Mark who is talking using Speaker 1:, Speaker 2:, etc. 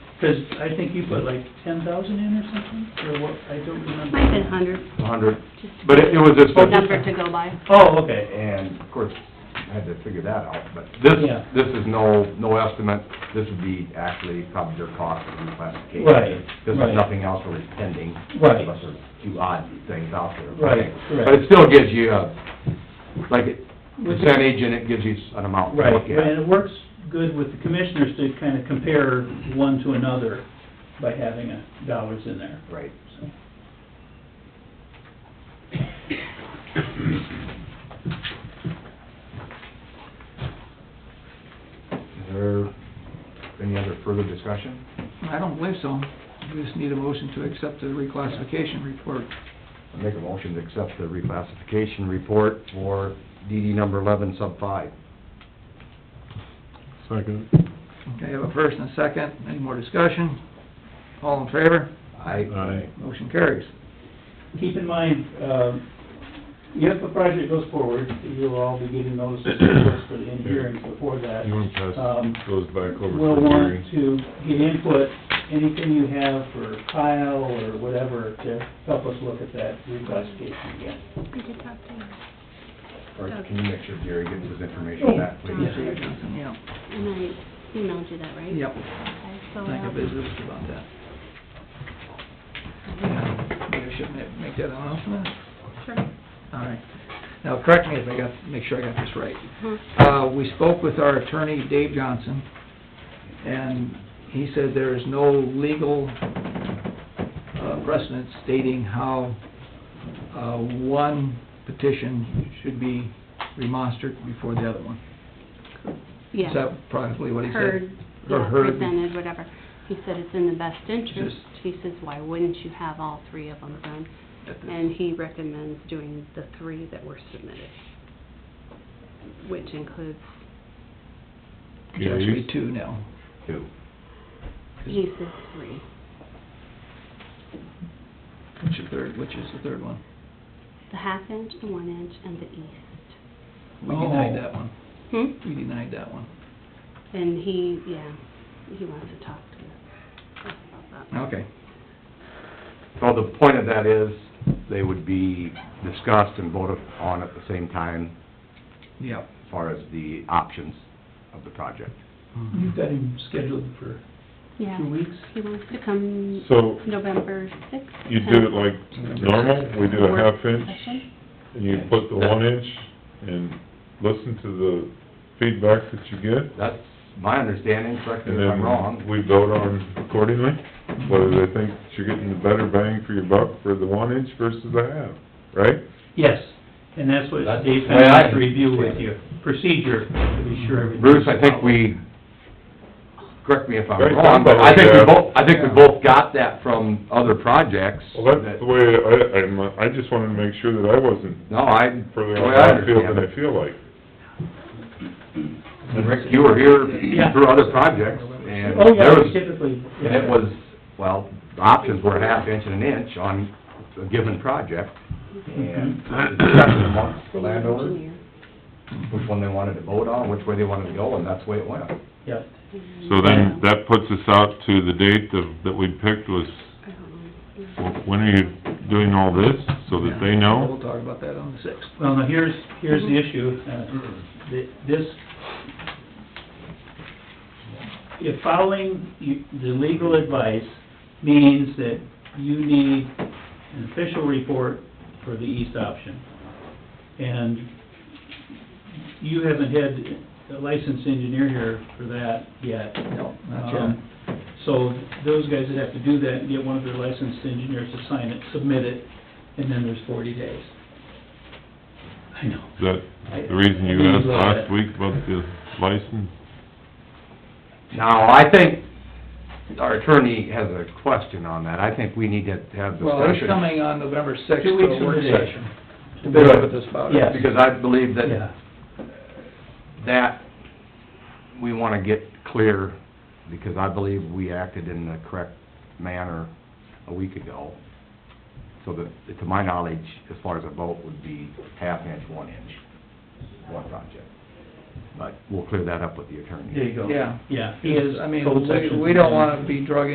Speaker 1: Because I think you put like ten thousand in or something, or what, I don't remember.
Speaker 2: Might have been hundred,
Speaker 3: a hundred,
Speaker 2: just
Speaker 3: but it it was just
Speaker 2: a
Speaker 3: a...
Speaker 2: number to go by.
Speaker 1: Oh, okay,
Speaker 3: And of course, I had to figure that out, but this,
Speaker 1: Yeah.
Speaker 3: this is no, no estimate, this would be actually probably their cost of reclassification.
Speaker 1: Right,
Speaker 3: This
Speaker 1: right.
Speaker 3: is nothing else really pending.
Speaker 1: Right.
Speaker 3: Unless there's two odd things out there.
Speaker 1: Right, correct.
Speaker 3: But it still gives you a, like,
Speaker 1: With the-
Speaker 3: percentage and it gives you an amount to
Speaker 1: right,
Speaker 3: look
Speaker 1: and
Speaker 3: at.
Speaker 1: it works good with the commissioners to kind of compare one to another by having a dollars in there,
Speaker 3: Right.
Speaker 1: so.
Speaker 3: Is there any other further discussion?
Speaker 4: I don't believe so. We just need a motion to accept the reclassification report.
Speaker 3: I Make a motion to accept the reclassification report for DD number eleven, sub five.
Speaker 5: Second.
Speaker 4: Okay, I have a first and a second. Any more discussion? All in favor?
Speaker 3: I,
Speaker 5: Aye.
Speaker 4: Motion carries.
Speaker 1: Keep in mind, um, if the project goes forward, you'll all be getting notices of course, for the end hearings before that.
Speaker 5: You want to
Speaker 1: Um,
Speaker 5: pass those back over
Speaker 1: We'll
Speaker 5: to
Speaker 1: want
Speaker 5: Gary?
Speaker 1: to get input, anything you have for Kyle or whatever, to help us look at that reclassification again.
Speaker 2: I did talk to him,
Speaker 3: or can you make sure Gary gets his information
Speaker 1: Oh,
Speaker 3: back, please?
Speaker 2: yeah.
Speaker 4: Mr. Johnson, Yeah,
Speaker 2: and I emailed you that, right?
Speaker 4: yep.
Speaker 2: Okay, so um,
Speaker 4: I think I
Speaker 2: I'll-
Speaker 4: visited about that. Yeah, Maybe I should ma- make that announcement.
Speaker 2: Sure.
Speaker 4: All right. Now, correct me if I got, make sure I got this right.
Speaker 2: Huh.
Speaker 4: Uh, we spoke with our attorney, Dave Johnson, and he said there is no legal uh, precedent stating how, uh, one petition should be remonstrated before the other one. Is
Speaker 2: Yeah,
Speaker 4: that probably what he said?
Speaker 2: heard,
Speaker 4: Or
Speaker 2: yeah,
Speaker 4: heard.
Speaker 2: presented, whatever. He said it's in the best interest.
Speaker 4: Just-
Speaker 2: He says, why wouldn't you have all three of them done?
Speaker 4: At the-
Speaker 2: And he recommends doing the three that were submitted, which includes,
Speaker 4: It's actually two now.
Speaker 3: Two.
Speaker 2: he says three.
Speaker 4: Which is third, which is the third one?
Speaker 2: The half inch, the one inch, and the east.
Speaker 4: We
Speaker 1: Oh.
Speaker 4: denied that one.
Speaker 2: Hmm?
Speaker 4: We denied that one.
Speaker 2: And he, yeah, he wants to talk to us about that.
Speaker 4: Okay.
Speaker 3: So the point of that is, they would be discussed and voted on at the same time
Speaker 4: Yep.
Speaker 3: as far as the options of the project.
Speaker 5: Mm-hmm.
Speaker 1: You've got him scheduled for
Speaker 2: Yeah,
Speaker 1: two weeks?
Speaker 2: he wants to come
Speaker 5: So
Speaker 2: November sixth.
Speaker 5: you do it like normal, we do a half inch, and you put the one inch and listen to the feedback that you get.
Speaker 3: That's my understanding, correct me
Speaker 5: And
Speaker 3: if I'm
Speaker 5: then
Speaker 3: wrong.
Speaker 5: we vote on accordingly, whether they think that you're getting the better bang for your buck for the one inch versus the half, right?
Speaker 1: Yes, and that's what
Speaker 3: That's
Speaker 1: Dave
Speaker 3: the way I
Speaker 1: had to review with
Speaker 3: understand
Speaker 1: you, procedure, to be sure everything.
Speaker 3: Bruce, I think we, correct me if I'm
Speaker 5: Very
Speaker 3: wrong, but I think we
Speaker 5: thorough, yeah.
Speaker 3: both, I think we both got that from other projects.
Speaker 5: Well, that's
Speaker 3: that-
Speaker 5: the way, I, I'm, I just wanted to make sure that I wasn't
Speaker 3: No, I, the
Speaker 5: further
Speaker 3: way
Speaker 5: on
Speaker 3: I
Speaker 5: that field
Speaker 3: understand
Speaker 5: than I
Speaker 3: it.
Speaker 5: feel like.
Speaker 3: And Rick, you were here
Speaker 1: Yeah.
Speaker 3: through other projects, and
Speaker 1: Oh,
Speaker 3: there
Speaker 1: yeah,
Speaker 3: was
Speaker 1: typically.
Speaker 3: And it was, well, the options were a half inch and an inch on a given project,
Speaker 1: Mm-hmm.
Speaker 3: and uh, discussion amongst the landowners, which one they wanted to vote on, which way they wanted to go, and that's the way it went.
Speaker 1: Yeah,
Speaker 5: So then, that puts us out to the date of, that we picked was, when are you doing all this, so that they know?
Speaker 4: We'll talk about that on the sixth.
Speaker 1: well, now here's, here's
Speaker 4: Mm-hmm.
Speaker 1: the issue, uh, th- this, if following you- the legal advice means that you need an official report for the east option, and you haven't had a licensed engineer here for that yet.
Speaker 4: No, not yet.
Speaker 1: Um, So those guys would have to do that and get one of their licensed engineers to sign it, submit it, and then there's forty days. I know.
Speaker 5: Is that the reason you asked last week about the license?
Speaker 3: Now, I think our attorney has a question on that, I think we need to have
Speaker 4: Well, it's
Speaker 3: discussion.
Speaker 4: coming on November sixth
Speaker 1: Two
Speaker 4: for
Speaker 1: weeks
Speaker 4: a
Speaker 1: from
Speaker 4: work
Speaker 1: today.
Speaker 4: session. To visit
Speaker 3: Good.
Speaker 4: with us about
Speaker 1: Yeah.
Speaker 4: it.
Speaker 3: Because I believe that,
Speaker 1: Yeah,
Speaker 3: that, we wanna get clear, because I believe we acted in the correct manner a week ago. So that, to my knowledge, as far as a vote, would be half inch, one inch, one project. But we'll clear that up with the attorney.
Speaker 1: there you go.
Speaker 4: Yeah.
Speaker 1: Yeah, he is
Speaker 4: I mean,
Speaker 1: code
Speaker 4: we-
Speaker 1: section.
Speaker 4: we don't wanna be drug